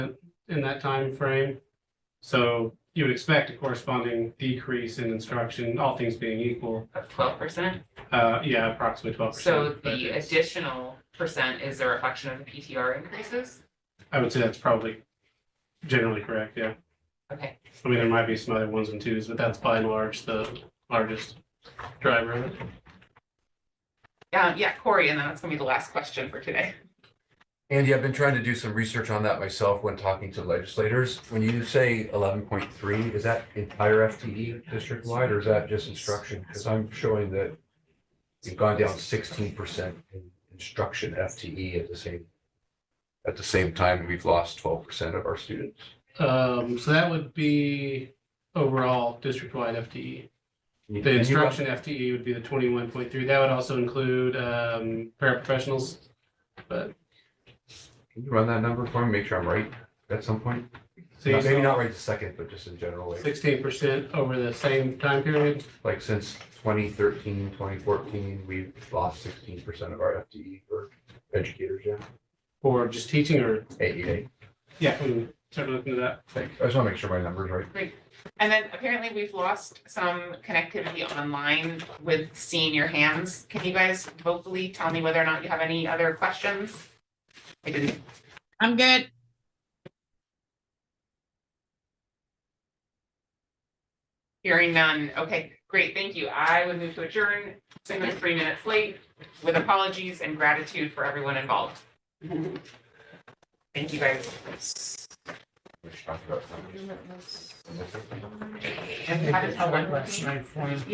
in that time frame. So you would expect a corresponding decrease in instruction, all things being equal, of twelve percent. uh, yeah, approximately twelve So percent. the additional percent is a reflection of the PTR increases? I would say that's probably generally correct, yeah. Okay, I mean, there might be some other ones and twos, but that's by and large the largest driver of it. um, yeah, Corey, and then that's gonna be the last question for today. Andy, I've been trying to do some research on that myself when talking to legislators. When you say eleven point three, is that entire FTE district wide or is that just instruction? Because I'm showing that you've gone down sixteen percent in instruction FTE at the same, at the same time, we've lost twelve percent of our students. Um, so that would be overall district-wide FTE. And The you- instruction FTE would be the twenty-one point three. That would also include, um, paraprofessionals. Can you run that number for me, make sure I'm right at some point? So you Maybe not right this second, but just in general, like- sixteen percent over the same time period. like since 2013, 2014, we've lost 16% of our FTE for educators, yeah. E Or just teaching or, AEA. yeah, we can start looking at that. Thanks. I just want to make sure my number's right. And then apparently we've lost some connectivity online with seeing your hands. Can you guys vocally tell me whether or not you have any other questions? I didn't I'm good. Hearing none. Okay, great, thank you. I would move to adjourn, saying that three minutes late, with apologies and gratitude for everyone involved. Thank you, guys. We should talk about numbers. And have a- I went last night for him.